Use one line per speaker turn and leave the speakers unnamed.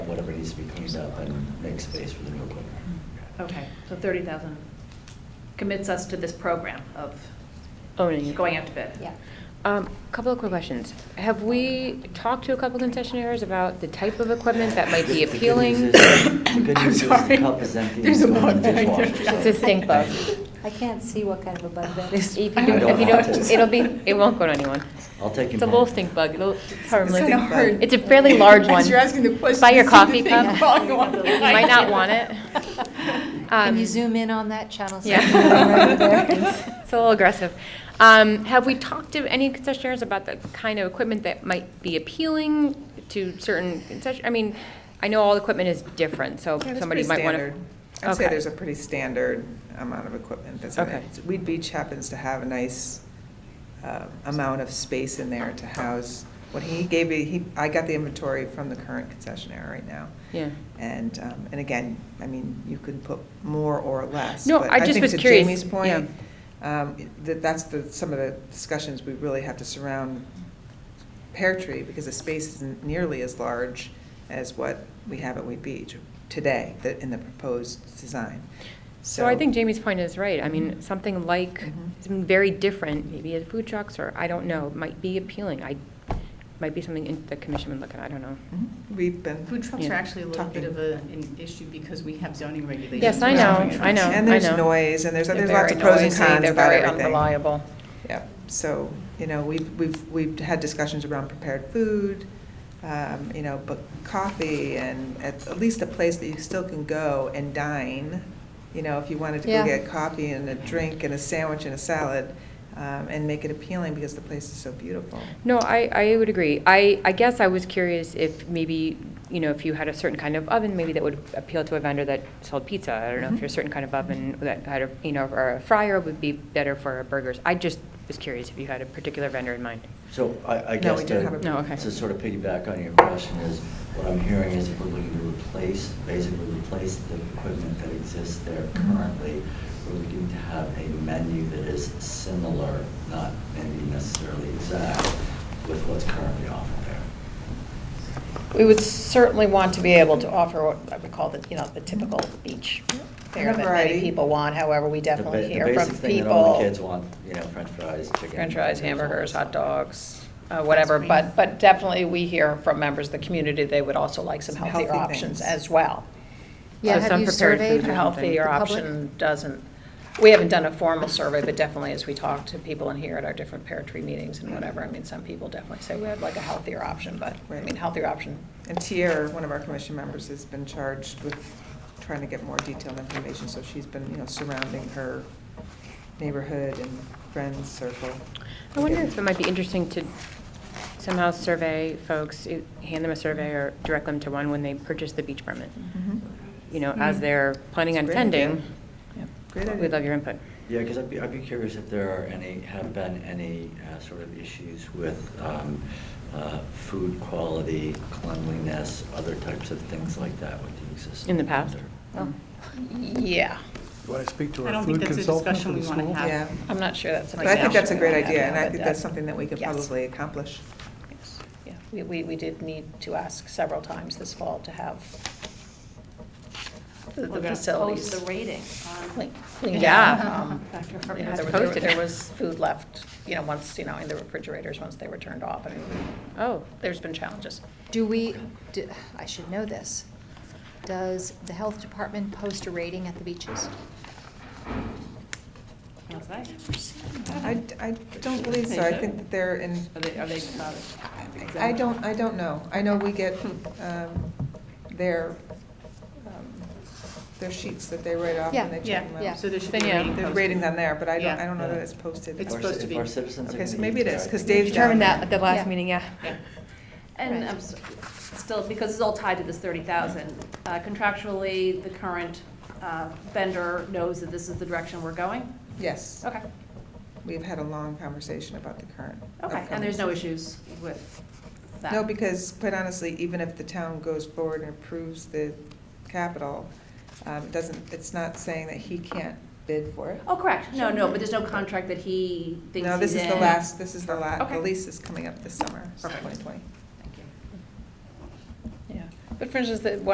needs to be cleaned up and make space for the new equipment.
Okay, so 30,000 commits us to this program of
Owning it.
going out to bid.
Yeah.
Um, Couple of quick questions. Have we talked to a couple concessionaires about the type of equipment that might be
The good news
appealing?
is- The good
I'm
news is
sorry.
the cup is empty.
There's
it's
a
going in
bug
the
back there.
dishwasher, so-
It's a stink bug.
I can't see what kind of a bug that
If
is.
you
I
do-
don't
if you
want
don't,
it.
it'll be, it won't go to anyone.
I'll take you.
It's a little stink bug, it'll, it's harmless.
kinda hard.
It's a fairly large one.
As you're asking the question,
By your
you see the
coffee
thing
cup,
falling on the
you might not want it.
Can
Um,
you zoom in on that channel? so I
Yeah.
can go right there?
It's a little aggressive. Um, Have we talked to any concessionaires about the kind of equipment that might be appealing to certain concession, I mean, I know all equipment is different, so
Yeah, that's
somebody
pretty
might want to.
standard. I'd say there's a pretty standard amount of equipment that's in
Okay.
it. Weed Beach happens to have a nice uh, amount of space in there to house, what he gave me, he, I got the inventory from the current concessionaire right now.
Yeah.
And, um, and again, I mean, you could put more or less.
No,
but
I just
think
was
to
curious,
Jamie's point, um, that, that's the, some of the discussions we really have to surround Pear Tree, because the space isn't nearly as large as what we have at Wheat Beach today, that, in the proposed design.
So I think Jamie's point is right. I
Mm-hmm.
mean, something like,
Mhm.
something very different, maybe at food trucks, or I don't know, might be appealing. I, might be something in- the commission would look at, I don't know.
Mhm. We've been.
Food trucks are
Yeah.
actually a little bit
Talking.
of a- an issue because we have zoning regulations.
Yes, I
around
know,
food
I know,
trucks.
I
And there's
know.
noise, and there's,
They're
there's lots of
very
pros and
noisy,
cons
they're
about
very
everything.
unreliable.
Yep, so, you know, we've, we've, we've had discussions around prepared food, um, you know, but coffee and at, at least a place that you still can go and dine. You know, if you wanted to go
Yeah.
get coffee and a drink and a sandwich and a salad, um, and make it appealing because the place is so beautiful.
No, I, I would agree. I, I guess I was curious if maybe, you know, if you had a certain kind of oven, maybe that would appeal to a vendor that sold pizza. I don't know if
Mhm.
your certain kind of oven that had a, you know, or a fryer would be better for burgers. I just was curious if you had a particular vendor in mind.
So I, I
No,
guess
we do have
to,
a-
No, okay.
to sort of piggyback on your question is, what I'm hearing is if we're looking to replace, basically replace the equipment that exists there currently, we're looking to have a menu that is similar, not maybe necessarily exact, with what's currently offered there.
We would certainly want to be able to offer what I would call the, you know, the typical beach fare
A
that
variety.
many people want, however, we
The ba-
definitely
the
hear
basic
from
thing that all the
people.
Kids want, you know, french fries, chicken.
French fries, hamburgers,
hamburgers, all
hot
that
dogs, uh, whatever, but, but definitely we hear from members of the community, they would also like some
Some
healthier
healthy
options
things.
as well.
Yeah,
So
have
some
you
prepared food
surveyed
or something.
A healthier
the public?
option doesn't, we haven't done a formal survey, but definitely as we talk to people in here at our different pear tree meetings and whatever, I mean, some people definitely say, we'd like a healthier option, but, I
Right.
mean, healthier option
And Tier, one of our commission members, has been charged with trying to get more detailed information, so she's been, you know, surrounding her neighborhood and friends circle.
I wonder if it might be interesting to somehow survey folks, eh, hand them a survey or direct them to one when they purchase the beach permit.
Mhm.
You know, as they're planning on
It's a great idea.
attending,
Great idea.
we'd love your input.
Yeah, because I'd be, I'd be curious if there are any, have been any uh, sort of issues with um, uh, food quality, cleanliness, other types of things like that with the existing.
In the past?
vendor.
Yeah,
Do I speak to
I
our
don't think
food
that's a
consultant for
discussion
the
we wanna
school?
have.
Yeah.
I'm not sure that's.
But I think that's a great idea, and I
But
think
that-
that's something that we could
Yes.
probably accomplish.
Yes, yeah, we, we, we did need to ask several times this fall to have the-
We're
the
gonna post
facilities
the rating on-
clean- cleaned
Yeah.
out. um,
After
you know,
Ferguson.
there were- there were-
Posted.
There was food left, you know, once, you know, in the refrigerators, once they were turned off, I mean,
Oh,
there's been challenges.
Do we, do- I should know this. Does the health department post a rating at the beaches?
I,
Mm-hmm.
I don't believe so, I think that they're in,
Are they, are they about it?
I don't, I don't know. I know we get
Hmm.
um, their, um, their sheets that they write off
Yeah,
and they
Yeah,
check them
yeah.
out.
so there should be
Then, yeah.
a rating.
There's
posted.
ratings on there, but I don't,
Yeah.
I don't know that it's posted.
It's
If our-
supposed to be.
If our citizens are
Okay,
gonna
so
eat
maybe it
there,
is,
I
'cause
think we
Dave's
should-
determined
that at the last
Yeah.
meeting, yeah.
Yeah.
And
Right.
I'm s- still, because it's all tied to this 30,000, uh, contractually, the current uh, vendor knows that this is the direction we're going?
Yes,
Okay,
we've had a long conversation about the current.
okay, and there's
upcoming-
no issues with that?
No, because quite honestly, even if the town goes forward and approves the capital, um, it doesn't, it's not saying that he can't bid for it.
Oh, correct, no, no, but there's no contract that he thinks
No, this
he's
is the
in.
last, this is the last,
Okay.
the lease is coming up this summer,
Perfect.
twenty twenty.
Thank you.
Yeah, but for instance, the,